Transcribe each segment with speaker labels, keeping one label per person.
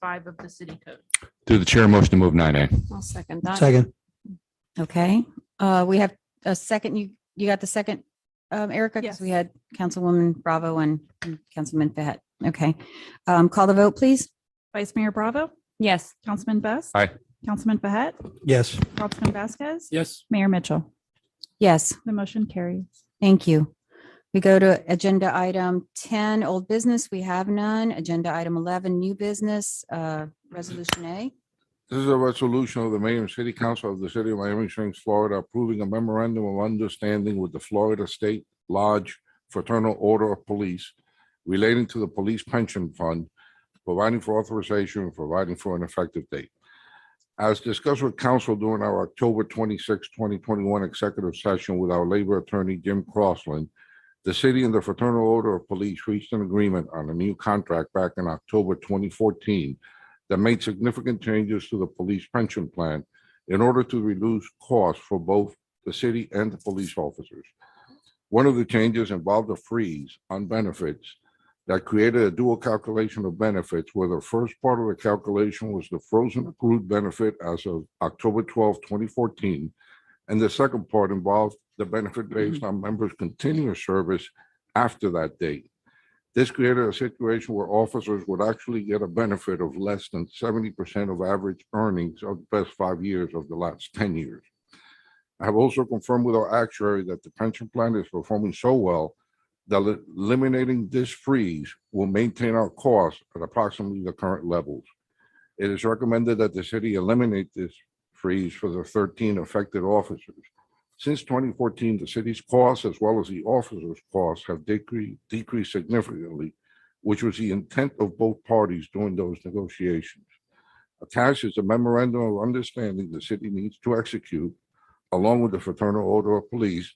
Speaker 1: five of the city code.
Speaker 2: Through the chair, motion to move nine A.
Speaker 3: I'll second that.
Speaker 4: Second.
Speaker 3: Okay, uh, we have a second, you, you got the second, um, Erica, because
Speaker 1: Yes.
Speaker 3: we had Councilwoman Bravo and and Councilman Fahet. Okay, um, call the vote, please.
Speaker 1: Vice Mayor Bravo,
Speaker 3: Yes.
Speaker 1: Councilman Best.
Speaker 2: Aye.
Speaker 1: Councilman Behet,
Speaker 4: Yes.
Speaker 1: Councilman Vasquez.
Speaker 5: Yes.
Speaker 1: Mayor Mitchell,
Speaker 3: Yes,
Speaker 1: the motion carries.
Speaker 3: thank you. We go to agenda item ten, old business, we have none. Agenda item eleven, new business, uh, resolution A.
Speaker 6: This is a resolution of the mayor and city council of the city of Miami Springs, Florida, approving a memorandum of understanding with the Florida State Lodge Fraternal Order of Police relating to the police pension fund, providing for authorization and providing for an effective date. As discussed with council during our October 26, 2021 executive session with our labor attorney, Jim Crossland, the city and the Fraternal Order of Police reached an agreement on a new contract back in October 2014 that made significant changes to the police pension plan in order to reduce costs for both the city and the police officers. One of the changes involved a freeze on benefits that created a dual calculation of benefits where the first part of the calculation was the frozen accrued benefit as of October 12, 2014. And the second part involved the benefit based on members' continuous service after that date. This created a situation where officers would actually get a benefit of less than seventy percent of average earnings of the best five years of the last ten years. I have also confirmed with our actuary that the pension plan is performing so well that el- eliminating this freeze will maintain our costs at approximately the current levels. It is recommended that the city eliminate this freeze for the thirteen affected officers. Since 2014, the city's costs as well as the officers' costs have decre- decreased significantly, which was the intent of both parties during those negotiations. Attached is a memorandum of understanding the city needs to execute along with the Fraternal Order of Police,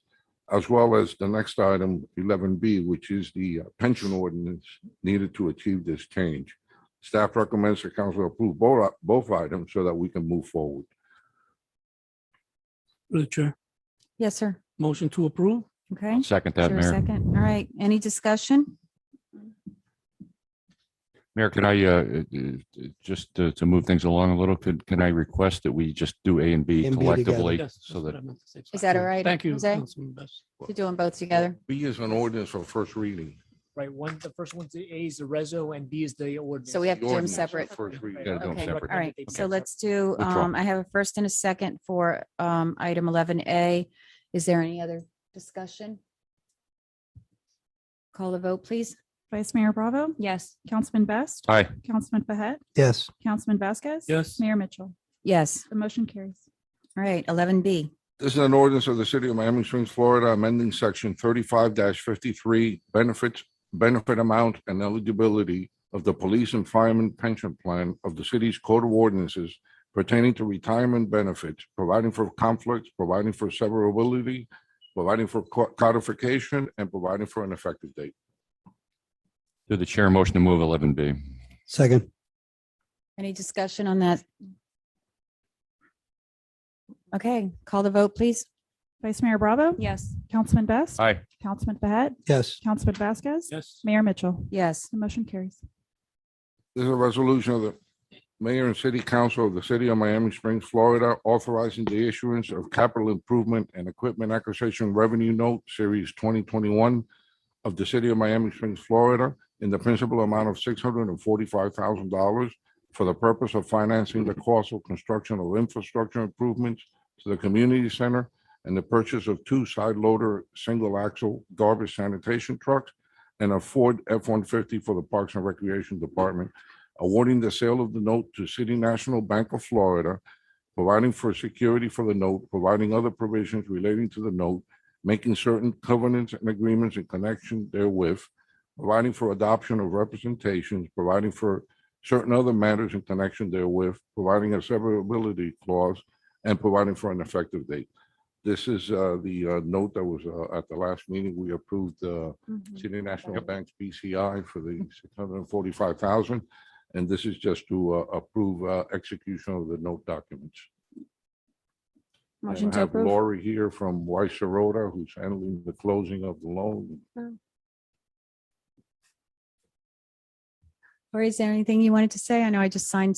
Speaker 6: as well as the next item, 11B, which is the uh, pension ordinance needed to achieve this change. Staff recommends the council approve both both items so that we can move forward.
Speaker 5: Through the chair,
Speaker 3: Yes, sir.
Speaker 5: motion to approve?
Speaker 3: Okay.
Speaker 2: Second
Speaker 3: Is
Speaker 2: that,
Speaker 3: there a
Speaker 2: Mayor.
Speaker 3: second? All right, any discussion?
Speaker 2: Mayor, could I, uh, uh, uh, just to, to move things along a little, could, can I request that we just do A and B
Speaker 4: And B together.
Speaker 2: collectively?
Speaker 5: Yes, that's
Speaker 2: So
Speaker 5: what
Speaker 2: that,
Speaker 5: I meant to say.
Speaker 3: Is that all right,
Speaker 5: Thank you,
Speaker 3: Jose?
Speaker 5: Councilman Best.
Speaker 3: To do them both together.
Speaker 6: B is an ordinance for first reading.
Speaker 7: Right, one, the first one's the A is the reso and B is the ordinance.
Speaker 3: So we have to do them
Speaker 6: Ordinance,
Speaker 3: separate.
Speaker 6: First reading.
Speaker 2: Gotta do them
Speaker 3: Okay,
Speaker 2: separate.
Speaker 3: All right, so let's do,
Speaker 2: Withdraw.
Speaker 3: um, I have a first and a second for, um, item eleven A. Is there any other discussion? Call the vote, please.
Speaker 1: Vice Mayor Bravo,
Speaker 3: Yes.
Speaker 1: Councilman Best.
Speaker 2: Aye.
Speaker 1: Councilman Behet,
Speaker 4: Yes.
Speaker 1: Councilman Vasquez.
Speaker 5: Yes.
Speaker 1: Mayor Mitchell,
Speaker 3: Yes,
Speaker 1: the motion carries.
Speaker 3: all right, eleven B.
Speaker 6: This is an ordinance of the city of Miami Springs, Florida, amending section thirty-five fifty-three, benefits, benefit amount and eligibility of the police and fireman pension plan of the city's code of ordinances pertaining to retirement benefits, providing for conflicts, providing for severability, providing for co- codification, and providing for an effective date.
Speaker 2: through the chair, motion to move eleven B.
Speaker 4: Second.
Speaker 3: Any discussion on that? Okay, call the vote, please.
Speaker 1: Vice Mayor Bravo,
Speaker 3: Yes.
Speaker 1: Councilman Best.
Speaker 2: Aye.
Speaker 1: Councilman Behet,
Speaker 4: Yes.
Speaker 1: Councilman Vasquez.
Speaker 5: Yes.
Speaker 1: Mayor Mitchell,
Speaker 3: Yes,
Speaker 1: the motion carries.
Speaker 6: This is a resolution of the mayor and city council of the city of Miami Springs, Florida, authorizing the issuance of capital improvement and equipment acquisition revenue note series twenty twenty-one of the city of Miami Springs, Florida, in the principal amount of six hundred and forty-five thousand dollars for the purpose of financing the cost of construction of infrastructure improvements to the community center and the purchase of two side loader, single axle garbage sanitation trucks and a Ford F-150 for the Parks and Recreation Department, awarding the sale of the note to City National Bank of Florida, providing for security for the note, providing other provisions relating to the note, making certain covenants and agreements in connection therewith, providing for adoption of representations, providing for certain other matters in connection therewith, providing a severability clause, and providing for an effective date. This is uh, the uh, note that was uh, at the last meeting, we approved uh, City National Bank's BCI for the six hundred and forty-five thousand. And this is just to uh, approve uh, execution of the note documents. And
Speaker 3: motion
Speaker 6: I
Speaker 3: to
Speaker 6: have
Speaker 3: approve.
Speaker 6: Lori here from Weiss Sirota, who's handling the closing of the loan.
Speaker 3: Lori, is there anything you wanted to say? I know I just signed